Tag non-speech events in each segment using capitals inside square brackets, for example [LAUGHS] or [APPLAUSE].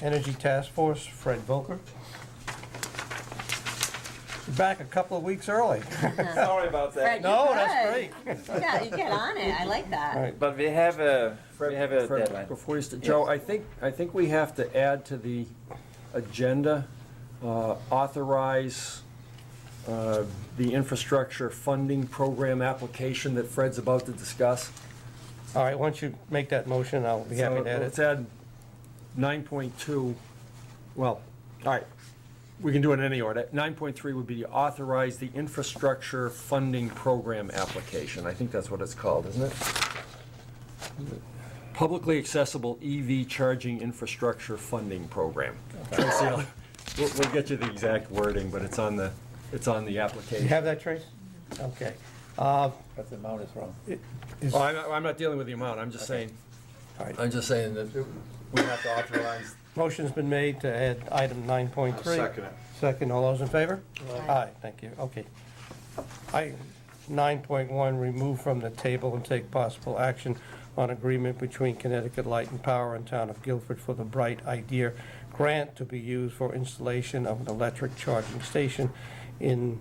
Energy Task Force, Fred Volker. You're back a couple of weeks early. [LAUGHS] Sorry about that. Fred, No, you that's could. great. Yeah, you get on it. I like All that. right. But we have a, we have a Fred, deadline. Before you, st- Joe, I think, I think we have to add to the agenda, uh, authorize uh, the infrastructure funding program application that Fred's about to discuss. All right, once you make that motion, I'll be happy So to add Let's it. add 9.2, well, all right, we can do it in any order. 9.3 would be authorize the infrastructure funding program application. I think that's what it's called, isn't it? Publicly accessible EV charging infrastructure funding program. Tracy, I'll- We'll, we'll get you the exact wording, but it's on the, it's on the You application. have that, Trace? Okay. But the amount is wrong. Is- Oh, I'm, not- I'm not dealing with the amount, I'm just saying, all right. I'm just saying that we have to authorize Motion's been made to add item 9.3. second it. Second, all those in favor? Aye. thank you, okay. I, 9.1, remove from the table and take possible action on agreement between Connecticut Light and Power and Town of Guilford for the Bright Idea Grant to be used for installation of an electric charging station in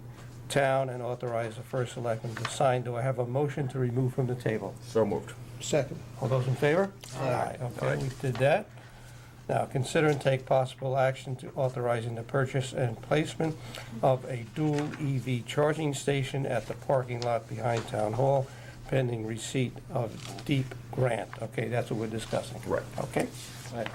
town and authorize the first selectman to sign. Do I have a motion to remove from the table? So moved. Second. All those in favor? Aye. Okay, we did that. Now, consider and take possible action to authorizing the purchase and placement of a dual EV charging station at the parking lot behind Town Hall pending receipt of deep grant. Okay, that's what we're discussing. Right. Okay? Right.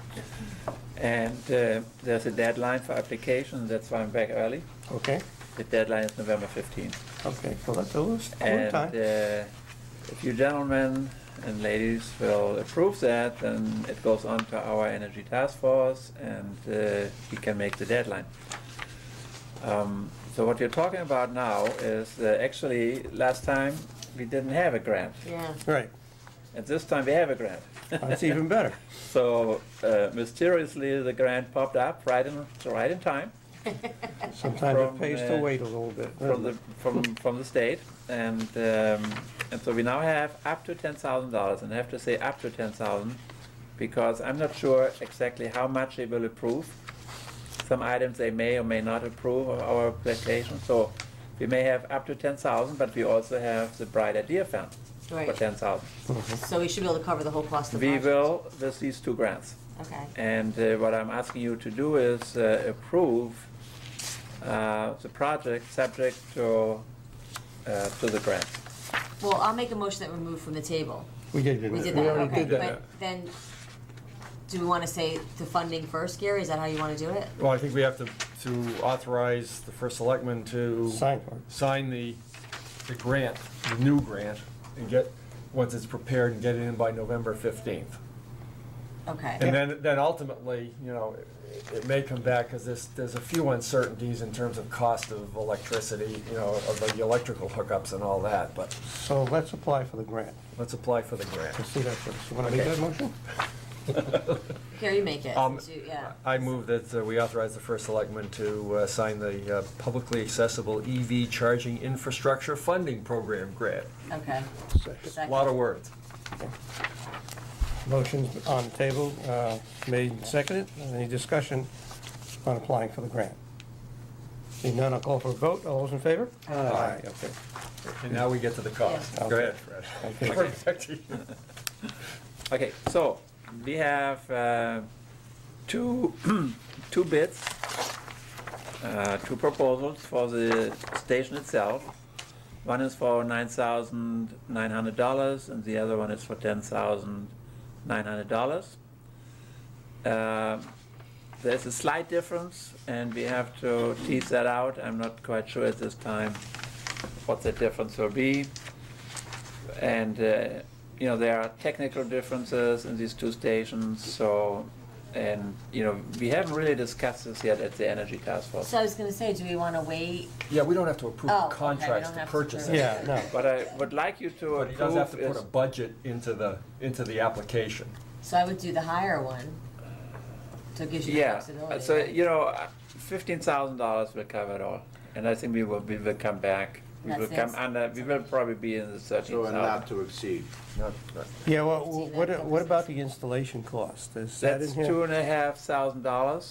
And uh, there's a deadline for application, that's why I'm back early. Okay, The deadline is November 15th. okay, so that's a little, And uh, time. if you gentlemen and ladies will approve that, then it goes on to our energy task force and uh, we can make the deadline. Um, So what you're talking about now is uh, actually, last time, we didn't have a grant. Yeah. [LAUGHS] Right, And this time we have a grant. that's even better. [LAUGHS] So uh, mysteriously, the grant popped up right in, right in time Sometimes From, it pays to uh, wait a little bit. from the, from, from the state. And, um, and so we now have up to ten thousand dollars, and I have to say up to ten thousand, because I'm not sure exactly how much they will approve. Some items they may or may not approve of our application, so we may have up to ten thousand, but we also have the Bright Idea Fund for Right. ten thousand. So we should be able to cover the whole cost of the We project. will, with these two grants. Okay. And uh, what I'm asking you to do is uh, approve uh, the project subject to, uh, to the grant. Well, I'll make a motion that we move from the table. We did do We that. did that, already okay. did that. But then, do we want to say the funding first, Gary? Is that how you want to do it? Well, I think we have to, to authorize the first selectman to. Sign for it. Sign the, the grant, the new grant, and get, once it's prepared, and get it in by November 15th. Okay. And then, then ultimately, you know, it- it may come back, because there's, there's a few uncertainties in terms of cost of electricity, you know, of the electrical hookups and all that, but So let's apply for the grant. let's apply for the grant. Let's see that first. You want to make Okay. that motion? Gary, you make it. Um, Do- Yeah. I move that uh, we authorize the first selectman to uh, sign the uh, publicly accessible EV charging infrastructure funding program grant. Okay. Second. Lot of words. Motion's on the table, uh, made and seconded. Any discussion on applying for the grant? Seeing none, I'll call for a vote. All those in favor? Aye. Okay. And now we get to the cost. Yeah. Go ahead, Fred. Okay, so we have uh, two, [CLEARS THROAT] two bids, uh, two proposals for the station itself. One is for nine thousand nine hundred dollars and the other one is for ten thousand nine hundred dollars. Uh, There's a slight difference and we have to tease that out. I'm not quite sure at this time what the difference will be. And, uh, you know, there are technical differences in these two stations, so, and, you know, we haven't really discussed this yet at the Energy Task Force. So I was going to say, do we want to wait? Yeah, we don't have to approve Oh, the okay, we contracts don't to have to purchase approve it. it. Yeah, no. But I would like you to But he does have approve to put is, a budget into the, into the application. So I would do the higher one. So it gives you the yeah, flexibility. so, right? you know, fifteen thousand dollars will cover it all. And I think we will, we will come back We will That's come next. under, we will probably be in the thirteen So and not thousand. to exceed. Not- not- Yeah, well, what, what about the installation cost? Is that in That's here? two and a half thousand dollars.